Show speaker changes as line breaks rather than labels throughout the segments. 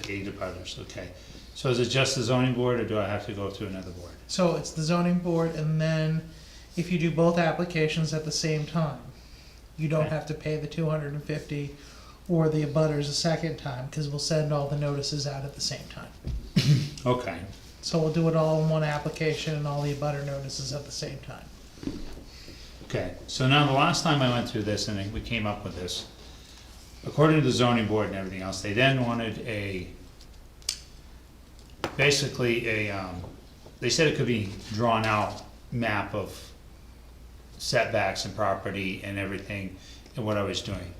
the eight of others, okay. So is it just the zoning board, or do I have to go through another board?
So it's the zoning board, and then if you do both applications at the same time, you don't
Okay.
have to pay the two hundred and fifty or the abutters a second time, because we'll send all the notices out at the same time.
Okay,
So we'll do it all in one application and all the abutter notices at the same time.
okay. So now, the last time I went through this, and then we came up with this, according to the zoning board and everything else, they then wanted a, basically a, um, they said it could be drawn out map of setbacks and property and everything, and what I was doing.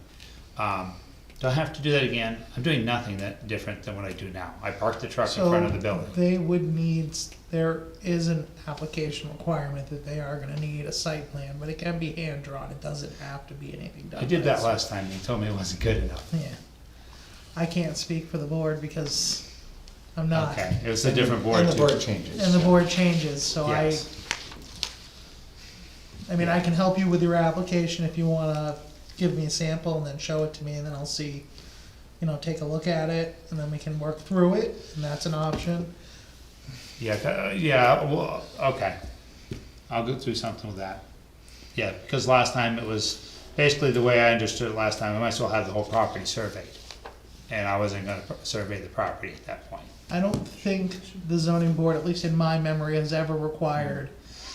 Um, Do I have to do that again? I'm doing nothing that, different than what I do now. I parked the truck in front of the
So
building.
they would need, there is an application requirement that they are gonna need a site plan, but it can be hand drawn, it doesn't have to be anything done.
I did that
by-
last time, and he told me it wasn't good enough.
Yeah. I can't speak for the board because I'm not.
Okay, it was a different board
Uh, And the board
too.
changes.
And the board changes, so I,
Yes,
I mean, I can help you with your application if you wanna give me a sample and then show it to me and then I'll see, you know, take a look at it and then we can work through it and that's an option.
yeah, uh, yeah, well, okay. I'll go through something with that. Yeah, because last time it was, basically the way I understood it last time, I might as well have the whole property surveyed. And I wasn't gonna pr- survey the property at that point.
I don't think the zoning board, at least in my memory, has ever required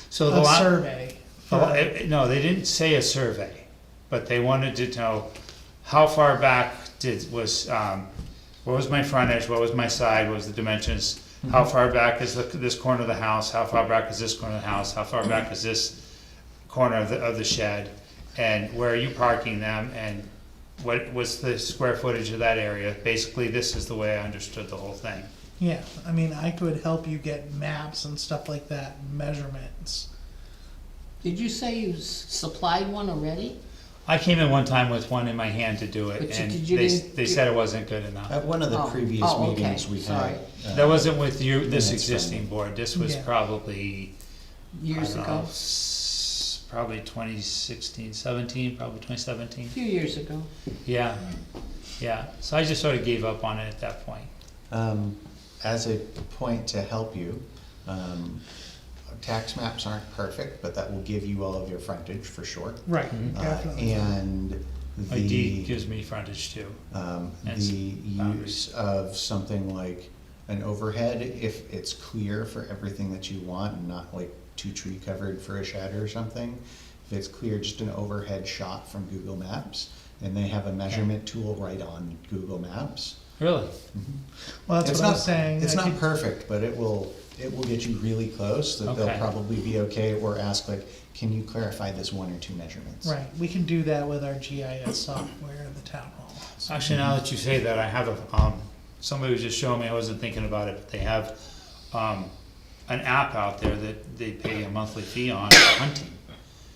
So the
a
lot.
survey. for-
Well, it- it- Oh, eh, No, they didn't say a survey, but they wanted to know how far back did, was, um, what was my frontage, what was my side, what was the dimensions?
Mm-hmm.
How far back is the- this corner of the house, how far back is this corner of the house, how far
Mm-hmm.
back is this corner of the, of the shed? And where are you parking them and what was the square footage of that area? Basically, this is the way I understood the whole thing.
Yeah, I mean, I could help you get maps and stuff like that, measurements.
Did you say you s- supplied one already?
I came in one time with one in my hand to do it
But you-
and
did you
they,
didn't-
they said it wasn't good enough.
At one of the
Oh,
previous
oh, okay,
meetings we
sorry.
had. uh,
That wasn't with you, this
That's
existing board, this was
Yeah.
probably, I
Years
don't know,
ago?
s- probably 2016, 17, probably twenty seventeen,
A few years ago.
yeah, yeah. So I just sort of gave up on it at that point.
Um, as a point to help you, um, tax maps aren't perfect, but that will give you all of your frontage for sure.
Right,
Mm-hmm.
Uh,
definitely.
And
My deed
the,
gives me frontage too,
um, the
and s- boundaries.
use of something like an overhead, if it's clear for everything that you want and not like too tree covered for a shed or something. If it's clear, just an overhead shot from Google Maps, and they have a measurement tool right on Google Maps.
really.
Well, that's
It's
what I'm
not-
saying.
It's
I
not
could-
perfect, but it will, it will get you really close, that they'll
Okay.
probably be okay, or ask like, can you clarify this one or two measurements?
Right, we can do that with our GIS software in the town hall.
Actually, now that you say that, I have a, um, somebody was just showing me, I wasn't thinking about it, but they have, um, an app out there that they pay a monthly fee on for hunting.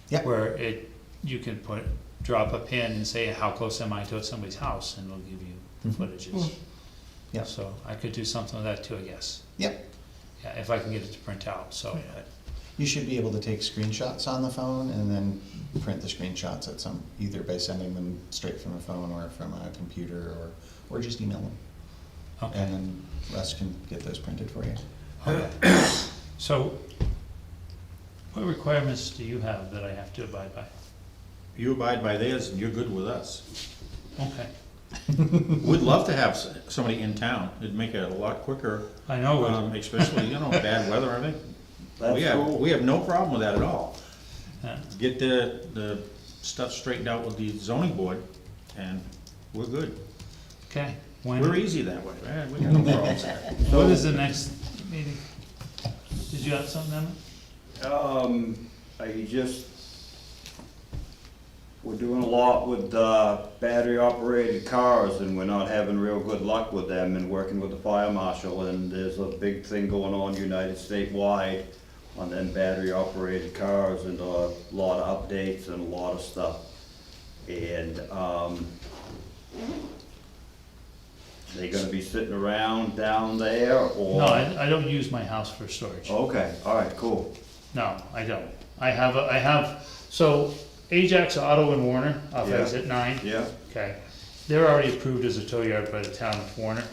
Yep.
Where it, you can put, drop a pin and say, how close am I to somebody's house, and it'll give you the
Mhm.
footages.
Mm.
Yep.
So I could do something with that too, I guess,
Yep,
yeah, if I can get it to print out, so,
Yeah.
but-
you should be able to take screenshots on the phone and then print the screenshots at some, either by sending them straight from a phone or from a computer or, or just email them. And
okay,
then Russ can get those printed for you.
okay. So, what requirements do you have that I have to abide by?
You abide by theirs and you're good with us.
Okay,
We'd love to have s- somebody in town, it'd make it a lot quicker,
I know what.
um, especially, you know, bad weather, I think. We have, we have no problem with that at all.
Yeah.
Get the, the stuff straightened out with the zoning board and we're good.
Okay, when,
We're easy that way, right? We got no problems there.
what is the next meeting? Did you have something, Emma?
Um, I just, we're doing a lot with, uh, battery operated cars and we're not having real good luck with them and working with the fire marshal and there's a big thing going on United Statewide on them battery operated cars and a lot of updates and a lot of stuff. And, um, they gonna be sitting around down there or?
No, I, I don't use my house for storage.
Okay, all right, cool.
No, I don't. I have, a- I have, so Ajax Auto and Warner, off
Yeah.
exit nine,
Yeah?
okay. They're already approved as a tow yard by the town of Warner.